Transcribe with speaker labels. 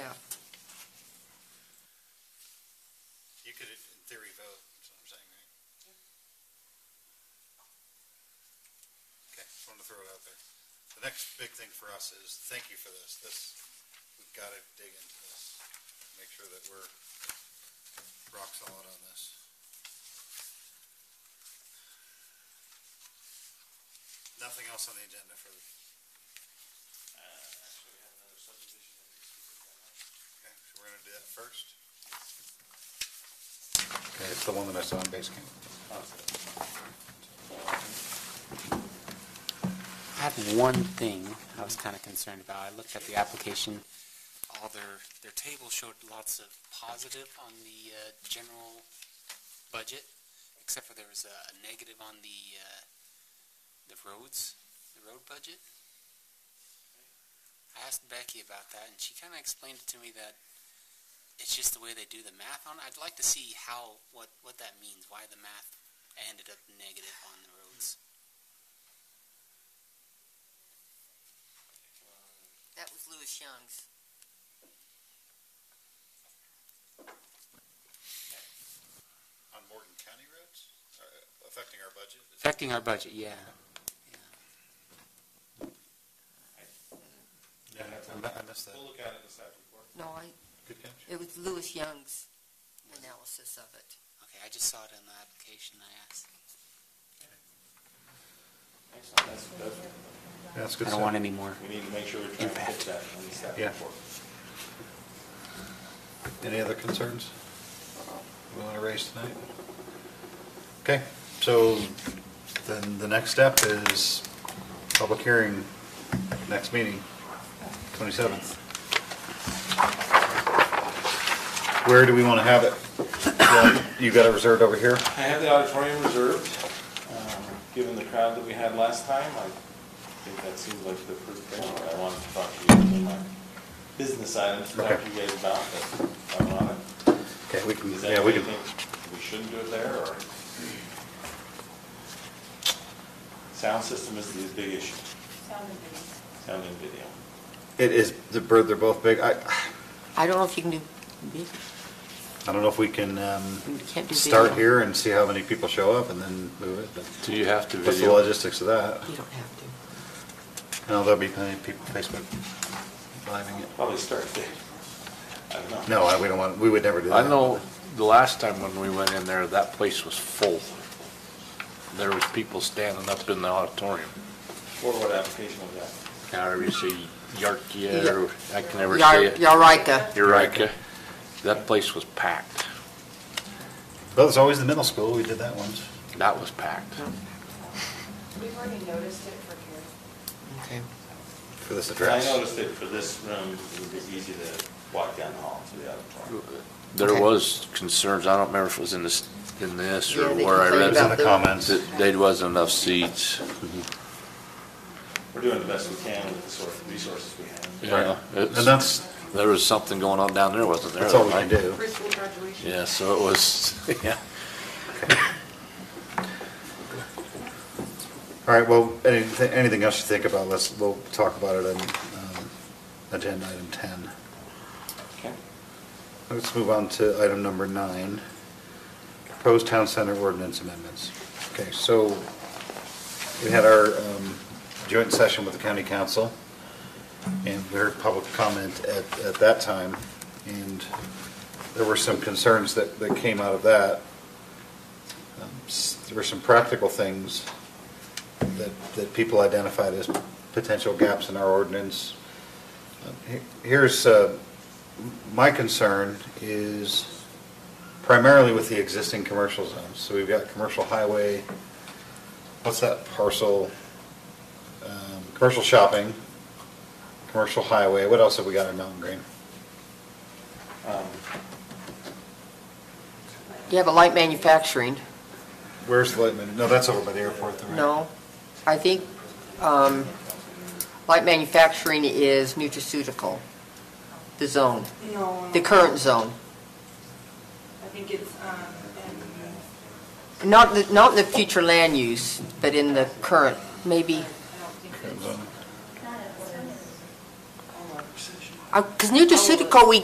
Speaker 1: throw it out there. The next big thing for us is, thank you for this. This, we've got to dig into this, make sure that we're rock solid on this. Nothing else on the agenda for,
Speaker 2: Uh, Actually, we have another subdivision that needs to
Speaker 1: okay, so
Speaker 2: be looked at.
Speaker 1: we're gonna do that first? Okay, it's the one that I saw on base camp.
Speaker 3: I have one thing I was kind of concerned about. I looked at the application. All their, their table showed lots of positive on the uh, general budget, except for there was a a negative on the, uh, the roads, the road budget. I asked Becky about that, and she kind of explained it to me that it's just the way they do the math on it. I'd like to see how, what, what that means, why the math ended up negative on the roads.
Speaker 4: That was Louis Young's.
Speaker 1: On Morgan County roads, uh, affecting our budget? Is that-
Speaker 3: Affecting our budget, yeah.
Speaker 1: I missed that.
Speaker 2: We'll look at it in the staff report.
Speaker 4: No, I,
Speaker 1: Good catch.
Speaker 4: it was Louis Young's analysis of it.
Speaker 3: Okay, I just saw it in the application I asked.
Speaker 2: That's, that's,
Speaker 1: That's
Speaker 3: I don't want any more.
Speaker 2: we need to make sure we're trying to hit that in the staff
Speaker 1: Yeah.
Speaker 2: report.
Speaker 1: Any other concerns we want to raise tonight? Okay, so then the next step is public hearing, next meeting, 27th. Where do we want to have it? You got it reserved over here?
Speaker 2: I have the auditorium reserved. Um, Given the crowd that we had last time, I think that seems like the first thing that I wanted to talk to you about. my Business items to talk
Speaker 1: Okay.
Speaker 2: to you guys about, but I'm on it.
Speaker 1: Okay, we can,
Speaker 2: Is that
Speaker 1: yeah, we can,
Speaker 2: anything We shouldn't do it there, or? Sound system is the big issue,
Speaker 5: Sound and video.
Speaker 2: sound and video.
Speaker 1: it is, the bird, they're both big. I,
Speaker 4: I don't know if you can do, you
Speaker 1: I don't know if we can um,
Speaker 4: can't do video.
Speaker 1: start here and see how many people show up and then move it. but
Speaker 6: Do you have to
Speaker 1: What's the
Speaker 6: video?
Speaker 1: logistics of that?
Speaker 4: You don't have to.
Speaker 1: No, there'll be plenty of people Facebook living it.
Speaker 2: Probably start there. I don't know.
Speaker 1: No, I- we don't want, we would never do that.
Speaker 6: I know the last time when we went in there, that place was full. There was people standing up in the auditorium.
Speaker 2: Or what application was that?
Speaker 6: However you say, Yarkia, or I can never say
Speaker 4: Yar-
Speaker 6: it.
Speaker 4: Yarika.
Speaker 6: Eureka. That place was packed.
Speaker 1: That was always the middle school, we did that once.
Speaker 6: That was packed.
Speaker 5: We've already noticed it for here.
Speaker 4: Okay.
Speaker 1: For this
Speaker 2: I
Speaker 1: address.
Speaker 2: noticed that for this room, it would be easy to walk down the hall to the auditorium.
Speaker 6: There
Speaker 4: Okay.
Speaker 6: was concerns, I don't remember if it was in this, in this
Speaker 4: Yeah,
Speaker 6: or
Speaker 4: they
Speaker 6: where I
Speaker 4: complained
Speaker 6: read
Speaker 1: It was in
Speaker 4: about
Speaker 6: it,
Speaker 1: the comments.
Speaker 6: that there wasn't enough seats.
Speaker 2: We're doing the best we can with the sort of resources we have.
Speaker 6: Yeah,
Speaker 1: And
Speaker 6: it's-
Speaker 1: that's,
Speaker 6: There was something going on down there, wasn't there?
Speaker 1: that's all we can do.
Speaker 5: Preschool graduation.
Speaker 6: Yeah, so it was, yeah.
Speaker 1: All right, well, anything, anything else you think about, let's, we'll talk about it in, um, agenda item ten.
Speaker 2: Okay.
Speaker 1: Let's move on to item number nine, proposed town center ordinance amendments. Okay, so we had our um, joint session with the county council, and we heard public comment at, at that time, and there were some concerns that, that came out of that. Um, s- There were some practical things that, that people identified as potential gaps in our ordinance. Uh, he- Here's, uh, my concern is primarily with the existing commercial zones. So we've got commercial highway, what's that parcel? Um, Commercial shopping, commercial highway, what else have we got in Mountain Green?
Speaker 2: Um,
Speaker 4: You have a light manufacturing.
Speaker 1: Where's the, light man- no, that's over by the airport, though, right?
Speaker 4: No, I think um, light manufacturing is nutraceutical, the zone,
Speaker 5: No.
Speaker 4: the current zone.
Speaker 5: I think it's, um, and
Speaker 4: Not, the- not in the future land use, but in the current, maybe,
Speaker 5: I don't think
Speaker 1: Current
Speaker 5: it's.
Speaker 1: zone.
Speaker 4: because Uh, nutraceutical, we